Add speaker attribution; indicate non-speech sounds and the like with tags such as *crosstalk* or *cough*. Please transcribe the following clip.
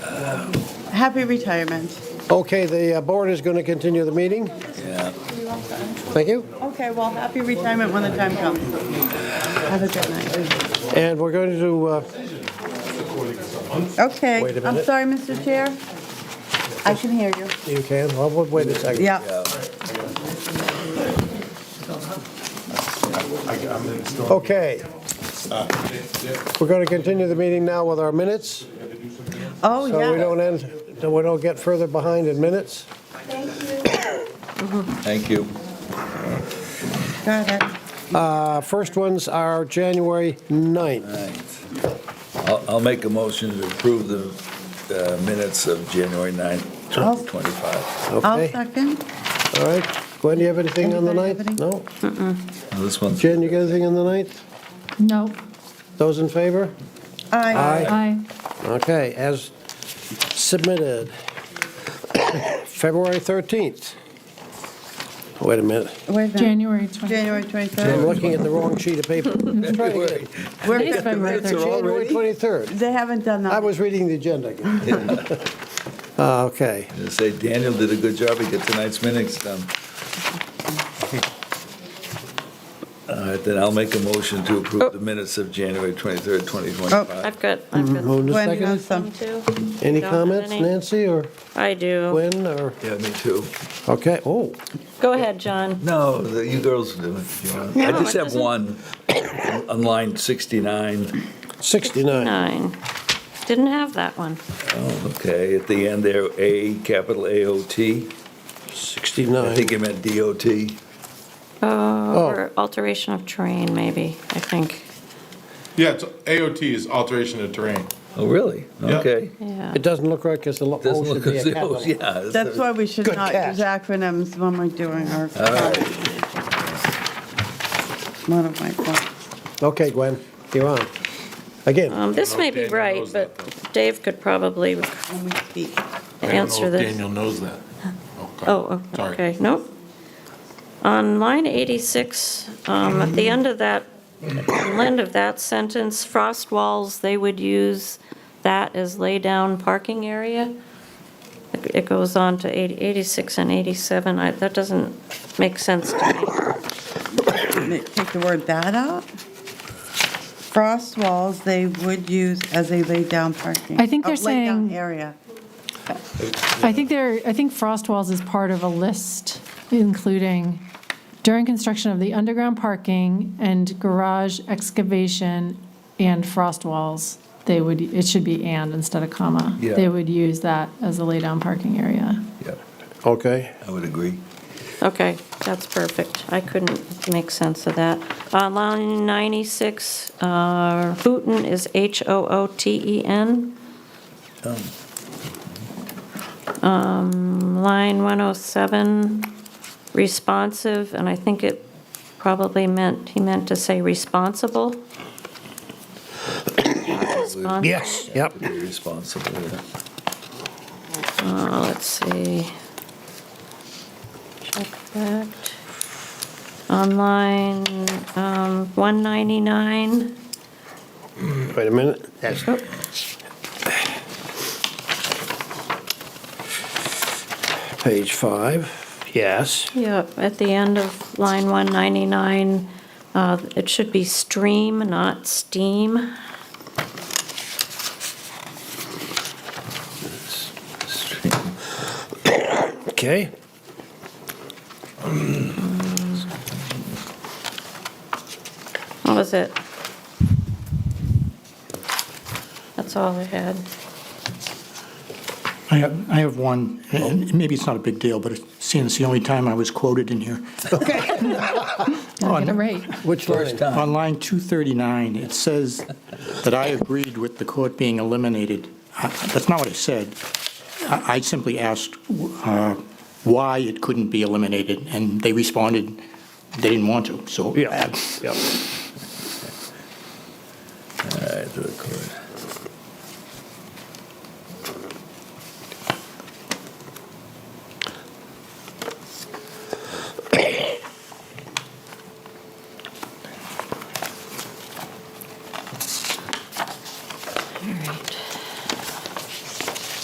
Speaker 1: Happy retirement.
Speaker 2: Okay, the uh, board is going to continue the meeting. Thank you.
Speaker 1: Okay, well, happy retirement when the time comes. Have a good night.
Speaker 2: And we're going to, uh,
Speaker 1: Okay,
Speaker 2: Wait a
Speaker 1: I'm
Speaker 2: minute.
Speaker 1: sorry, Mr. Chair. I can hear you.
Speaker 2: you can, well, wait a second.
Speaker 1: Yeah,
Speaker 2: Okay. We're going to continue the meeting now with our minutes,
Speaker 1: oh,
Speaker 2: so we
Speaker 1: yeah.
Speaker 2: don't end, so we don't get further behind in minutes.
Speaker 3: Thank you.
Speaker 1: Got it.
Speaker 2: Uh, First ones are January 9th.
Speaker 3: I'll, I'll make a motion to approve the uh, minutes of January 9th, 2025.
Speaker 1: I'll
Speaker 2: Okay,
Speaker 1: second.
Speaker 2: all right. Gwen, do you have anything on the
Speaker 1: Anybody have
Speaker 2: 9th? No?
Speaker 3: Now, This one's,
Speaker 2: Jen, you got anything on the 9th?
Speaker 4: No.
Speaker 2: Those in favor?
Speaker 1: Aye.
Speaker 4: Aye.
Speaker 2: Okay, as submitted, February 13th. Wait a minute,
Speaker 1: Wait a minute.
Speaker 4: January 20.
Speaker 1: January 23rd.
Speaker 2: I'm looking at the wrong sheet of
Speaker 3: *laughs*
Speaker 2: paper.
Speaker 1: We're-
Speaker 4: It is February
Speaker 3: Minutes are
Speaker 4: 13th.
Speaker 2: January 23rd.
Speaker 1: They haven't done
Speaker 2: I
Speaker 1: that.
Speaker 2: was reading the agenda
Speaker 3: *laughs*
Speaker 2: again. Uh, Okay,
Speaker 3: I say Daniel did a good job, he get tonight's minutes done. All right, then I'll make a motion to approve the minutes of January 23rd, 2025.
Speaker 5: I've got, I've got
Speaker 2: moved
Speaker 1: Gwen
Speaker 2: and
Speaker 1: has
Speaker 2: seconded.
Speaker 1: uh, some.
Speaker 5: two.
Speaker 2: Mm-hmm. Any
Speaker 5: Don't have
Speaker 2: comments,
Speaker 5: any.
Speaker 2: Nancy or
Speaker 5: I do.
Speaker 2: Gwen or,
Speaker 3: Yeah, me too.
Speaker 2: okay, oh,
Speaker 5: Go ahead, John.
Speaker 3: No, the- you girls do it. if you want. I
Speaker 5: No,
Speaker 3: just
Speaker 5: it
Speaker 3: have
Speaker 5: doesn't-
Speaker 3: one on line 69.
Speaker 2: 69.
Speaker 5: Nine. Didn't have that one.
Speaker 3: Oh, Okay, at the end there, A, capital A-O-T. I
Speaker 2: 69.
Speaker 3: think it meant D-O-T.
Speaker 5: Uh,
Speaker 2: Oh.
Speaker 5: Or alteration of terrain, maybe, I think.
Speaker 6: Yeah, it's, AOT is alteration of terrain.
Speaker 3: Oh, really?
Speaker 6: Yeah.
Speaker 3: Okay.
Speaker 5: Yeah.
Speaker 2: It doesn't look like it's a lot,
Speaker 3: Doesn't
Speaker 2: oh,
Speaker 3: look
Speaker 2: should be
Speaker 3: as
Speaker 2: a
Speaker 3: though,
Speaker 2: capital.
Speaker 3: yeah.
Speaker 1: That's why we should
Speaker 2: Good
Speaker 1: not
Speaker 2: catch.
Speaker 1: use acronyms when we're doing our, one of my points.
Speaker 2: Okay, Gwen, you're on. Again,
Speaker 5: Um, This may be
Speaker 6: Daniel
Speaker 5: right,
Speaker 6: knows
Speaker 5: but
Speaker 6: that,
Speaker 5: Dave could probably
Speaker 1: When we speak.
Speaker 5: answer this.
Speaker 6: knows that.
Speaker 5: Oh, oh,
Speaker 6: Sorry.
Speaker 5: okay, nope. On line 86, um, at the end of that, the end of that sentence, frost walls, they would use that as lay-down parking area. It- It goes on to 80 86 and 87, I- that doesn't make sense to me.
Speaker 1: Take the word that out. Frost walls, they would use as a laid-down parking.
Speaker 4: I think they're
Speaker 1: uh, laid-down
Speaker 4: saying-
Speaker 1: Area.
Speaker 4: I think there, I think frost walls is part of a list including during construction of the underground parking and garage excavation and frost walls, they would, it should be and instead of comma.
Speaker 3: Yeah.
Speaker 4: They would use that as a lay-down parking area.
Speaker 3: Yeah,
Speaker 2: okay,
Speaker 3: I would agree.
Speaker 5: Okay, that's perfect. I couldn't make sense of that. On line 96, uh, Hooten is E H-O-O-T-E-N. Um, Line 107, responsive, and I think it probably meant, he meant to say responsible. Respons-
Speaker 2: yes, yep.
Speaker 3: To be responsible. yeah.
Speaker 5: Uh, Let's see. Check that. Online, um, 199.
Speaker 2: Wait a minute, that's,
Speaker 5: Oh,
Speaker 2: Page five, yes.
Speaker 5: Yeah, at the end of line 199, uh, it should be stream, not steam.
Speaker 2: Okay.
Speaker 5: What was it? That's all I had.
Speaker 7: I have, I have one, and maybe it's not a big deal, but it's- seeing it's the only time I was quoted in here.
Speaker 4: Gotta get it right.
Speaker 2: Which line?
Speaker 7: On line 239, it says that I agreed with the court being eliminated. I- That's not what I said. I I simply asked uh, why it couldn't be eliminated, and they responded, they didn't want to, so.
Speaker 2: Yeah, yeah.
Speaker 3: All right, to the court.